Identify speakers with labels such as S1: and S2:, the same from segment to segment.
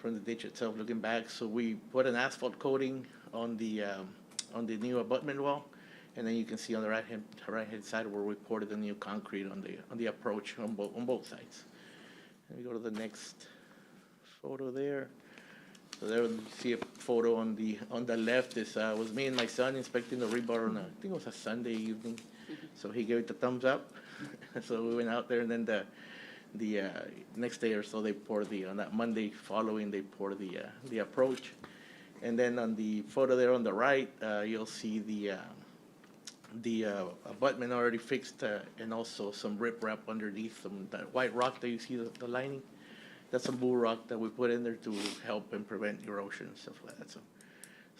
S1: from the ditch itself looking back. So we put an asphalt coating on the, um, on the new abutment wall. And then you can see on the right-hand, right-hand side where we poured the new concrete on the, on the approach on both, on both sides. Let me go to the next photo there. So there you see a photo on the, on the left is, uh, was me and my son inspecting the rebar on a, I think it was a Sunday evening. So he gave it the thumbs up. So we went out there and then the, the, uh, next day or so they poured the, on that Monday following, they poured the, uh, the approach. And then on the photo there on the right, uh, you'll see the, uh, the uh, abutment already fixed uh, and also some riprap underneath some that white rock that you see the, the lining. That's some bull rock that we put in there to help and prevent erosion and stuff like that. So,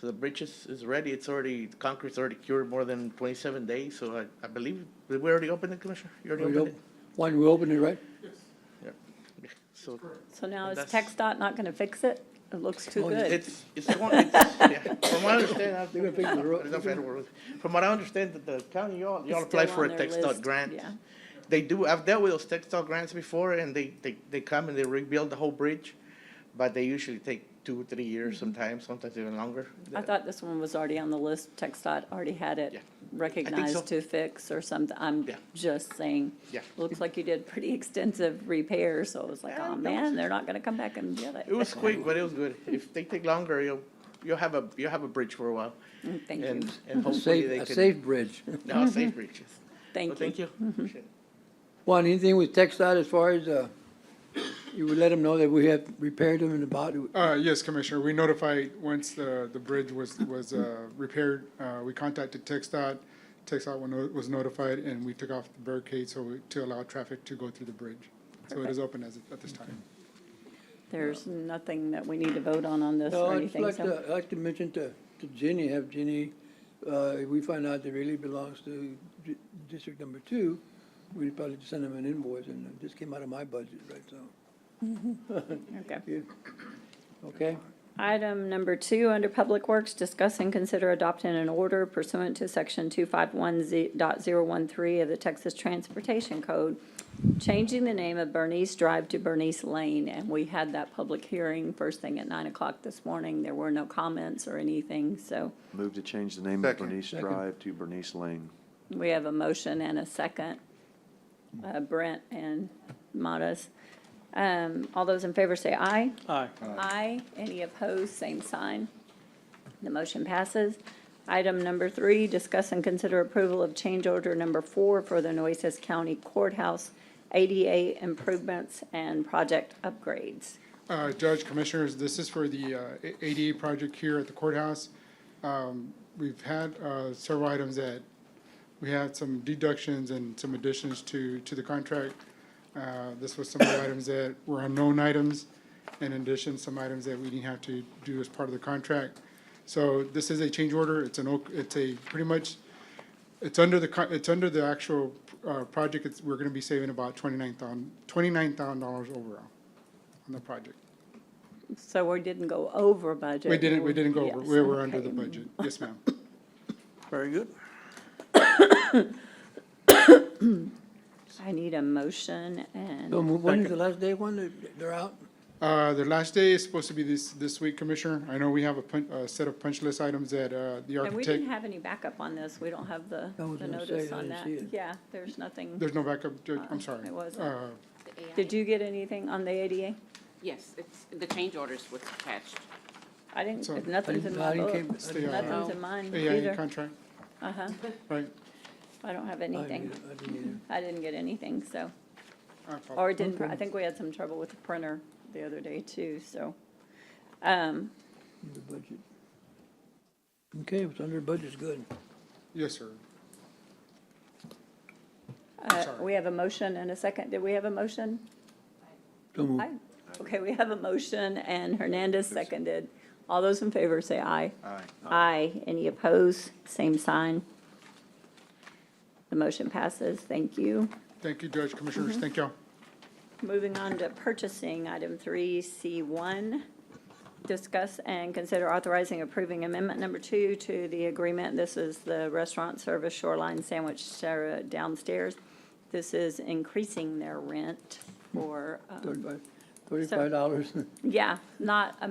S1: so the bridge is, is ready. It's already concrete's already cured more than 27 days. So I, I believe did we already opened it, Commissioner. You already
S2: We
S1: opened
S2: op- One, we opened it, right?
S1: it. Yeah. So
S3: So now
S1: And
S3: is
S1: that's-
S3: TxDOT not gonna fix it? It looks too
S2: Oh, yeah.
S3: good.
S1: it's it's, going, it's yeah. from what I understand. I've-
S2: They're gonna fix the road.
S1: There's no federal road. From what I understand, that the county y'all y'all
S3: It's
S1: applied
S3: still
S1: for a
S3: on their
S1: text dot
S3: list,
S1: grant.
S3: yeah.
S1: They do, I've dealt with those textile grants before, and they, they, they come and they rebuild the whole bridge, but they usually take two, three years sometimes, sometimes even longer.
S3: Mm-hmm. I thought this one was already on the list. TxDOT already had
S1: Yeah.
S3: it
S1: so.
S3: recognized to fix or something. I'm
S1: Yeah.
S3: just saying.
S1: Yeah.
S3: Looks like you did pretty extensive repairs, so it was like,
S1: Yeah,
S3: oh
S1: that was-
S3: man, they're not gonna come back and get it.
S1: It was quick, but it was good. If they take longer, you'll, you'll have a, you'll have a bridge for a while.
S3: Mm, Thank you,
S1: And, and
S2: A
S1: hopefully they
S2: safe, a
S1: can,
S2: safe bridge.
S1: no, safe bridges. So
S3: thank
S1: thank
S3: you. Mm-hmm.
S1: you. Appreciate it.
S2: Juan, anything with Texas as far as, uh, you would let them know that we have repaired them and about,
S4: Uh, yes, Commissioner, we notified, once the, the bridge was, was, uh, repaired, uh, we contacted TXDOT. TXDOT wa- no- was notified and we took off the barricade so, we- to allow traffic to go through the bridge. So it is open as, at this time.
S3: There's nothing that we need to vote on on this
S2: No,
S3: or
S2: I'd just
S3: anything,
S2: like
S3: so.
S2: to, I'd like to mention to, to Jenny, have Jenny, uh, if we find out that really belongs to di- District Number Two, we'd probably just send them an invoice, and it just came out of my budget, right, so,
S3: Okay.
S2: yeah. Okay,
S3: Item number two, under Public Works, discuss and consider adopting an order pursuant to section 251.013 of the Texas Transportation Code, changing the name of Bernice Drive to Bernice Lane, and we had that public hearing first thing at nine o'clock this morning. There were no comments or anything, so
S5: Move to change the name of
S4: Second.
S5: Bernice Drive to Bernice Lane.
S3: we have a motion and a second. Uh, Brent and Matas. Um, All those in favor say aye.
S2: aye.
S3: Aye. Any opposed, same sign. The motion passes. Item number three, discuss and consider approval of change order number four for the Nueces County Courthouse ADA improvements and project upgrades.
S4: Uh, Judge, Commissioners, this is for the uh, A- ADA project here at the courthouse. Um, We've had uh, several items that, we had some deductions and some additions to, to the contract. Uh, This was some of the items that were unknown items, in addition, some items that we didn't have to do as part of the contract. So this is a change order, it's an, oak- it's a, pretty much, it's under the, co- it's under the actual uh, project, it's, we're gonna be saving about twenty-nine thousand, twenty-nine thousand dollars overall on the project.
S3: So we didn't go over budget.
S4: We didn't, we didn't go over,
S3: Yes,
S4: we were under
S3: okay.
S4: the budget, yes, ma'am.
S1: Very good.
S3: I need a motion and,
S2: So when is the last day, when they- they're out?
S4: Uh, the last day is supposed to be this, this week, Commissioner. I know we have a pun, a set of punch list items that, uh, the
S3: and we didn't
S4: architect,
S3: have any backup on this. We don't have the
S2: I was
S3: the
S2: gonna say,
S3: notice
S2: I
S3: on
S2: didn't
S3: that.
S2: see it.
S3: Yeah, there's nothing.
S4: there's no backup, Judge, I'm
S3: Uh,
S4: sorry.
S3: it wasn't.
S4: Uh,
S6: The AI.
S3: Did you get anything on the ADA?
S6: Yes, it's, the change orders was attached.
S3: I didn't,
S4: So-
S3: nothing's in my
S2: I didn't
S3: book.
S2: came-
S4: the, uh,
S3: Nothing's in mine
S4: AIA
S3: either.
S4: contract,
S3: Uh-huh.
S4: right?
S3: I don't have
S2: I didn't
S3: anything.
S2: either, I didn't either.
S3: I didn't get anything, so,
S4: I apologize.
S3: or it didn't, pr- I think we had some trouble with the printer the other day too, so. Um,
S2: In the budget. Okay, if it's under budget's good.
S4: Yes, sir.
S3: uh,
S4: Sorry.
S3: we have a motion and a second. Did we have a motion?
S2: So moved.
S3: Aye. Okay, we have a motion and Hernandez seconded. All those in favor say aye.
S5: Aye.
S3: Aye. Any opposed? Same sign. The motion passes. Thank you.
S4: Thank you, Judge, Commissioners,
S3: Mm-hmm.
S4: thank y'all.
S3: Moving on to purchasing, item three, C one. Discuss and consider authorizing approving amendment number two to the agreement. This is the restaurant service Shoreline Sandwich Sarah downstairs. This is increasing their rent for, um,
S2: Thirty-five, Thirty-five dollars.
S3: Yeah, not a